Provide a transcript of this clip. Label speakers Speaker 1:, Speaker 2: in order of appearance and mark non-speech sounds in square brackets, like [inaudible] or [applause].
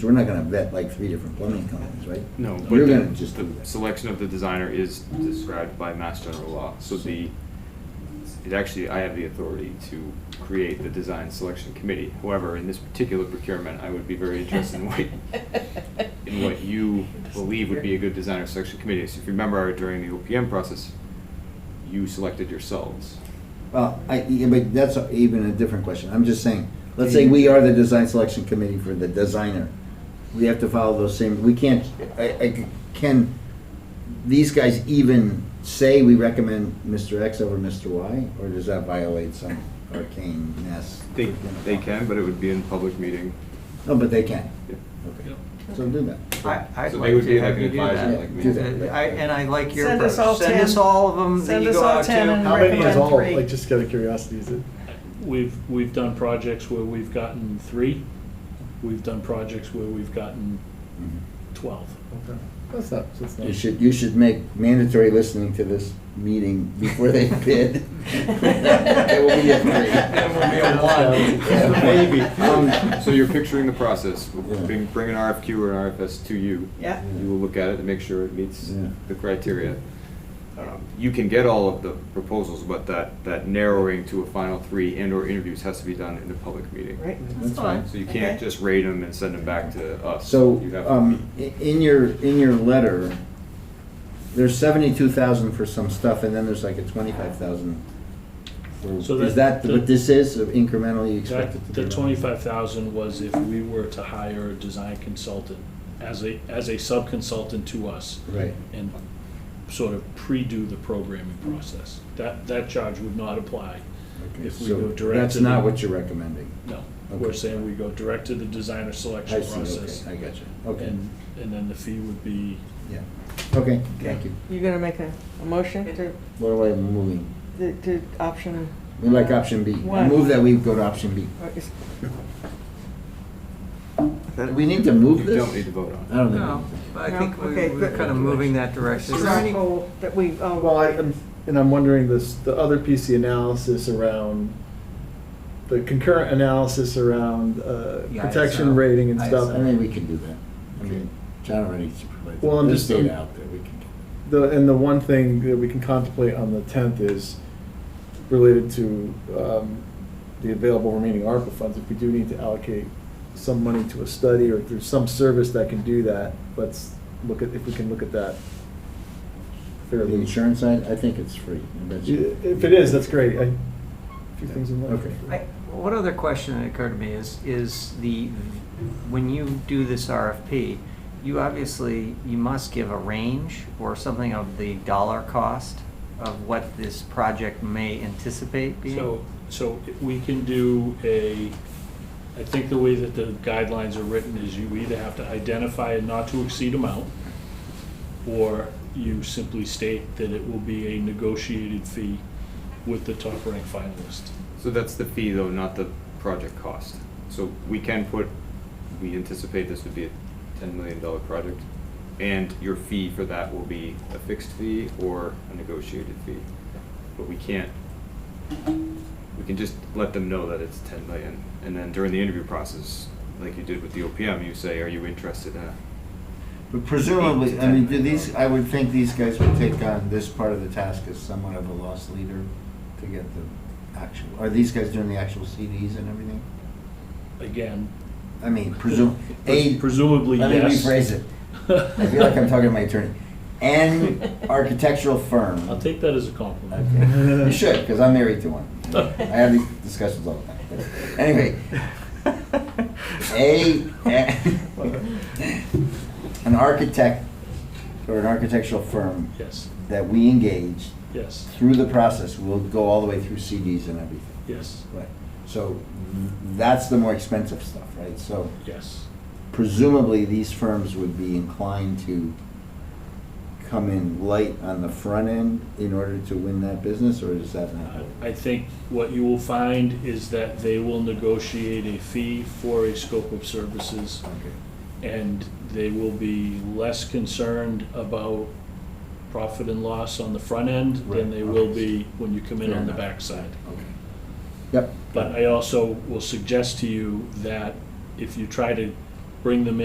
Speaker 1: So we're not gonna vet like three different plumbing companies, right?
Speaker 2: No, but
Speaker 1: We're gonna
Speaker 2: the,
Speaker 1: just,
Speaker 2: the selection of the designer is described by Mass General Law, so the, it actually, I have the authority to create the design selection committee. However, in this particular procurement, I would be very interested in what, in what you believe would be a good designer selection committee. So if you remember during the OPM process, you selected yourselves.
Speaker 1: well, I, yeah, but that's even a different question. I'm just saying, let's say we are the design selection committee for the designer. We have to follow those same, we can't, I, I, can these guys even say we recommend Mr. X over Mr. Y? Or does that violate some arcane mess?
Speaker 2: They, they can, but it would be in public meeting.
Speaker 1: No, but they can.
Speaker 2: Yeah.
Speaker 1: Okay. So do that.
Speaker 3: I, I'd
Speaker 2: So
Speaker 3: like
Speaker 2: they would
Speaker 3: to
Speaker 2: be
Speaker 3: have
Speaker 2: having
Speaker 3: you do
Speaker 2: advisors
Speaker 3: that.
Speaker 2: like me.
Speaker 1: Do that.
Speaker 3: Uh, I, and I like your
Speaker 4: Send us all
Speaker 3: approach. Send
Speaker 4: 10.
Speaker 3: us all of them that
Speaker 4: Send
Speaker 3: you
Speaker 4: us
Speaker 3: go
Speaker 4: all
Speaker 3: out
Speaker 4: 10 and
Speaker 3: to.
Speaker 5: How many is
Speaker 4: recommend
Speaker 5: all,
Speaker 4: three.
Speaker 5: like, just out of curiosity, is it?
Speaker 6: We've, we've done projects where we've gotten three, we've done projects where we've gotten
Speaker 1: Mhm.
Speaker 6: twelve.
Speaker 5: Okay. That's not, that's not.
Speaker 1: You should, you should make mandatory listening to this meeting before they bid. It will be a
Speaker 3: It will be a
Speaker 1: three.
Speaker 3: one.
Speaker 1: Maybe. [laughs]
Speaker 2: Um, So you're picturing the process,
Speaker 1: Yeah.
Speaker 2: bring, bring an RFQ or an RFS to you.
Speaker 4: Yeah.
Speaker 2: You will look at it and make sure it meets
Speaker 1: Yeah.
Speaker 2: the criteria. Um, You can get all of the proposals, but that, that narrowing to a final three and/or interviews has to be done in the public meeting.
Speaker 4: Right,
Speaker 1: That's
Speaker 4: that's fine.
Speaker 2: So you can't
Speaker 4: Okay.
Speaker 2: just rate them and send them back to us.
Speaker 1: So,
Speaker 2: You have to
Speaker 1: um, i- in your, in your letter, there's seventy-two thousand for some stuff, and then there's like a twenty-five thousand.
Speaker 6: So
Speaker 1: Is that
Speaker 6: that-
Speaker 1: what this is, of incrementally
Speaker 6: That,
Speaker 1: expected to be?
Speaker 6: the twenty-five thousand was if we were to hire a design consultant as a, as a sub-consultant to us
Speaker 1: Right,
Speaker 6: and sort of pre-do the programming process. That, that charge would not apply.
Speaker 1: okay,
Speaker 6: If we
Speaker 1: so
Speaker 6: go direct
Speaker 1: that's
Speaker 6: to the-
Speaker 1: not what you're recommending.
Speaker 6: No,
Speaker 1: Okay.
Speaker 6: we're saying we go direct to the designer
Speaker 1: I
Speaker 6: selection
Speaker 1: see,
Speaker 6: process.
Speaker 1: okay, I got you, okay,
Speaker 6: And, and then the fee would be,
Speaker 1: yeah, okay, thank you.
Speaker 7: You're gonna make a, a motion to,
Speaker 1: What am I moving?
Speaker 7: to- to option?
Speaker 1: We like option B. I
Speaker 7: Why?
Speaker 1: move that we go to option B.
Speaker 7: or is-
Speaker 1: Do we need to move
Speaker 2: You
Speaker 1: this?
Speaker 2: don't need to vote on
Speaker 1: I
Speaker 2: it.
Speaker 1: don't
Speaker 3: No,
Speaker 1: know.
Speaker 3: I
Speaker 7: No?
Speaker 3: think we-
Speaker 7: Okay,
Speaker 3: we're
Speaker 7: good.
Speaker 3: kind of moving that direction. Is there any-
Speaker 7: Circle That we, oh.
Speaker 5: Uh, Well, I, um, I'm- and I'm wondering this, the other piece, the analysis around, the concurrent analysis around, uh,
Speaker 3: Yeah, ISO.
Speaker 5: protection rating and
Speaker 1: I
Speaker 5: stuff.
Speaker 1: mean, we can do that. I mean, John already provided.
Speaker 5: Well, I'm
Speaker 1: There's
Speaker 5: just-
Speaker 1: data out there, we can do that.
Speaker 5: The, and the one thing that we can contemplate on the tenth is related to, um, the available remaining ARPA funds. If we do need to allocate some money to a study or through some service that can do that, let's look at, if we can look at that
Speaker 1: The
Speaker 5: fairly.
Speaker 1: insurance side, I think it's free. I bet you-
Speaker 5: If it is, that's great. I, a few things in life.
Speaker 1: Okay.
Speaker 3: I- One other question that occurred to me is, is the, when you do this RFP, you obviously, you must give a range or something of the dollar cost of what this project may anticipate being?
Speaker 6: so, so we can do a, I think the way that the guidelines are written is you either have to identify a not to exceed amount, or you simply state that it will be a negotiated fee with the top ranked finalist.
Speaker 2: So that's the fee though, not the project cost. So we can put, we anticipate this would be a ten million dollar project. And your fee for that will be a fixed fee or a negotiated fee. But we can't, we can just let them know that it's ten million. And then during the interview process, like you did with the OPM, you say, are you interested in? a-"
Speaker 1: But presumably, I mean, do these, I would think these guys would take on this part of the task as somewhat of a loss leader to get the actual, are these guys doing the actual CDs and everything?
Speaker 6: Again,
Speaker 1: I mean, presume, A,
Speaker 6: presumably,
Speaker 1: let me
Speaker 6: yes.
Speaker 1: rephrase it. I feel like I'm talking to my attorney.
Speaker 5: [laughs]
Speaker 1: An architectural firm.
Speaker 6: [laughs] I'll take that as a compliment.
Speaker 1: Okay. You should, because I'm married to one. I have these discussions all the time. But Anyway,
Speaker 6: [laughs]
Speaker 1: a, an architect or an architectural firm
Speaker 6: Yes,
Speaker 1: that we engage
Speaker 6: yes,
Speaker 1: through the process will go all the way through CDs and everything.
Speaker 6: yes,
Speaker 1: Right. So that's the more expensive stuff, right? So
Speaker 6: yes.
Speaker 1: presumably, these firms would be inclined to come in light on the front end in order to win that business, or is that not?
Speaker 6: Uh, I think what you will find is that they will negotiate a fee for a scope of services,
Speaker 1: Okay.
Speaker 6: and they will be less concerned about profit and loss on the front end
Speaker 1: Right,
Speaker 6: than they will
Speaker 1: okay.
Speaker 6: be when you come in
Speaker 1: Fair
Speaker 6: on the
Speaker 1: enough.
Speaker 6: backside.
Speaker 1: Okay. Yep.
Speaker 6: But I also will suggest to you that if you try to bring them in.